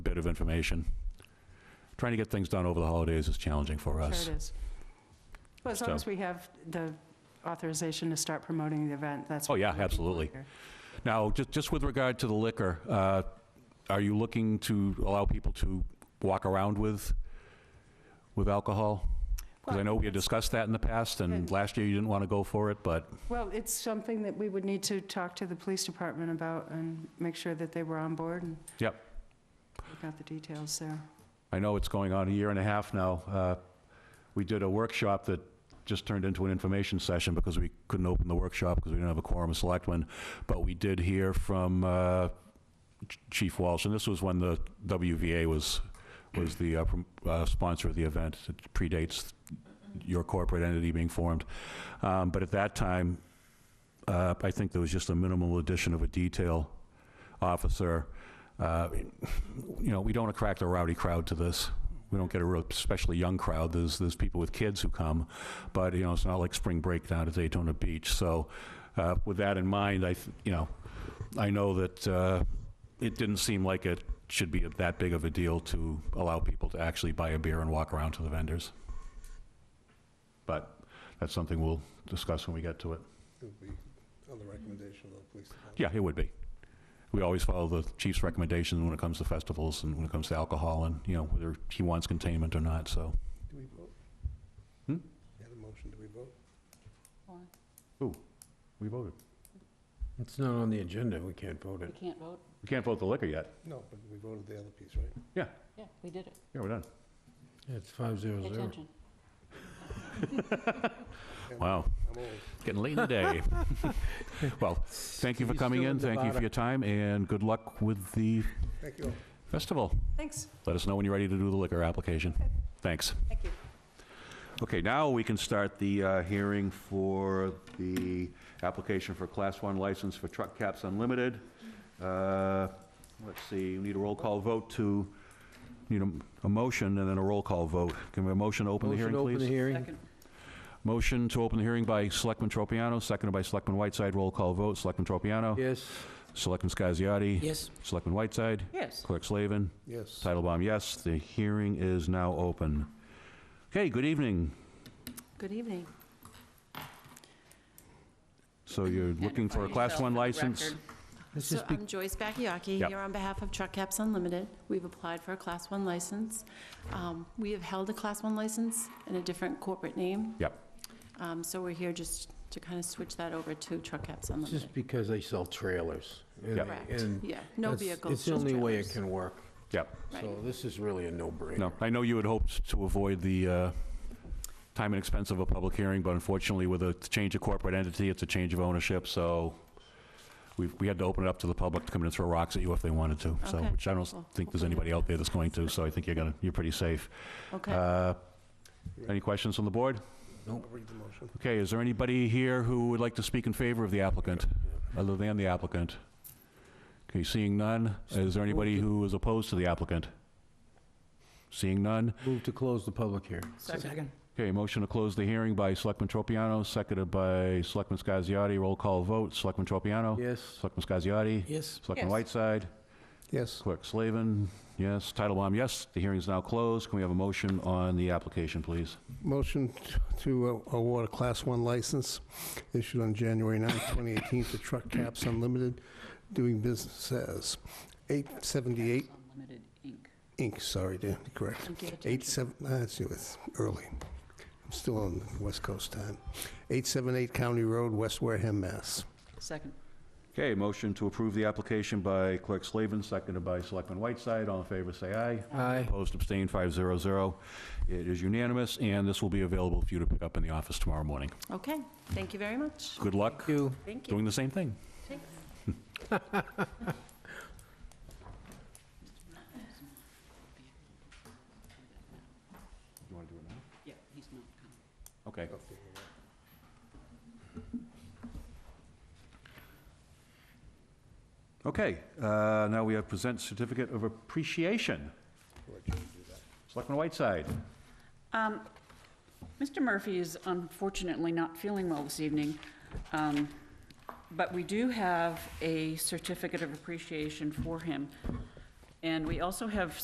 of information. Trying to get things done over the holidays is challenging for us. Sure it is. Well, as long So- as we have the authorization to start promoting the event, that's. Oh, what yeah, we're looking for absolutely. here. Now, just, just with regard to the liquor, uh, are you looking to allow people to walk around with, with alcohol? Because I know we had discussed that in the past, and Good. last year you didn't want to go for it, but, Well, it's something that we would need to talk to the police department about and make sure that they were on board and. Yep. Look out the details there. I know it's going on a year and a half now. Uh, We did a workshop that just turned into an information session because we couldn't open the workshop because we didn't have a quorum of selectmen. But we did hear from uh, Ch- Chief Walsh, and this was when the WVA was, was the uh, prom- uh, sponsor of the event. It predates your corporate entity being formed. Um, But at that time, uh, I think there was just a minimal addition of a detail officer. Uh, you know, we don't attract a rowdy crowd to this. We don't get a real, especially young crowd. There's, there's people with kids who come, but, you know, it's not like spring break down at Daytona Beach. So uh, with that in mind, I, th- you know, I know that uh, it didn't seem like it should be that big of a deal to allow people to actually buy a beer and walk around to the vendors. But that's something we'll discuss when we get to it. It would be on the recommendation of the police department. Yeah, it would be. We always follow the chief's recommendations when it comes to festivals and when it comes to alcohol and, you know, whether he wants containment or not, so. Do we vote? Hmm? You had a motion, do we vote? We voted. It's not on the agenda, we can't vote it. can't vote? We can't vote the liquor yet. No, but we voted the other piece, right? Yeah, we did it. Yeah, we're done. It's five zero Pay zero. attention. Yeah, Wow, I'm old. getting late in the day. Well, thank you for He's coming still in, in thank you for Nevada. your time, and good luck with the Thank you. festival. Thanks. Let us know when you're ready to do the liquor application. Thanks. Thank you. Okay, now we can start the uh, hearing for the application for Class 1 license for Truck Caps Unlimited. Uh, Let's see, we need a roll call vote to, need a- a motion and then a roll call vote. Can we have a motion to open the hearing, Motion to open the please? hearing. Second, Motion to open the hearing by Selectman Tropiano, seconded by Selectman Whiteside. Roll call vote, Selectman Tropiano. Yes, Selectman Scasiotti. Yes. Selectman Whiteside. yes. Clerk Slavin. Yes. Titlebaum, yes. The hearing is now open. Okay, good evening. Good evening. So you're looking for a Class 1 license? this is, So be- I'm Joyce Bakayaki, Yep. here on behalf of Truck Caps Unlimited. We've applied for a Class 1 license. Um, We have held a Class 1 license in a different corporate name. Yep. Um, So we're here just to kind of switch that over to Truck Caps this is Unlimited. because they sell trailers. and- Yep. Correct, and yeah, no that's- vehicles, It's the just only way it trailers. can work, Yep. so Right. this is really a no-brainer. No, I know you had hoped to avoid the uh, time and expense of a public hearing, but unfortunately, with a change of corporate entity, it's a change of ownership, so we we had to open it up to the public to come in and throw rocks at you if they wanted to, so, Okay. which I don't think there's anybody out there that's going to, so I think you're gonna, you're pretty safe. Okay, Uh, Any questions from the board? I'll read the motion. Okay, is there anybody here who would like to speak in favor of the applicant, other than the applicant? Okay, seeing none, is there anybody who is opposed to the applicant? Seeing none, Move to close the public hearing. Second. Okay, motion to close the hearing by Selectman Tropiano, seconded by Selectman Scasiotti. Roll call vote, Selectman Tropiano. Yes, Selectman Scasiotti. Yes. Selectman Yes. Whiteside. Yes. Clerk Slavin, yes. Titlebaum, yes. The hearing is now closed. Can we have a motion on the application, please? Motion to uh, award a Class 1 license issued on January 9, 2018 to Truck Caps Unlimited, doing business as 878 Unlimited Inc. Inc., sorry, Dan, correct. thank you. Eight seven, uh, it's it's early. I'm still on West Coast time. 878 County Road, West Wareham, Mass. Second, Okay, motion to approve the application by Clerk Slavin, seconded by Selectman Whiteside. All in favor, say aye. aye. Opposed, abstained, 500. It is unanimous, and this will be available for you to pick up in the office tomorrow morning. Okay, thank you very much. Good luck You, Thank you. doing the same thing. Thanks. You want to do it now? yeah, he's not coming. Okay. Okay, uh, now we have present certificate of appreciation. Selectman Whiteside. Um, Mr. Murphy is unfortunately not feeling well this evening, um, but we do have a certificate of appreciation for him. And we also have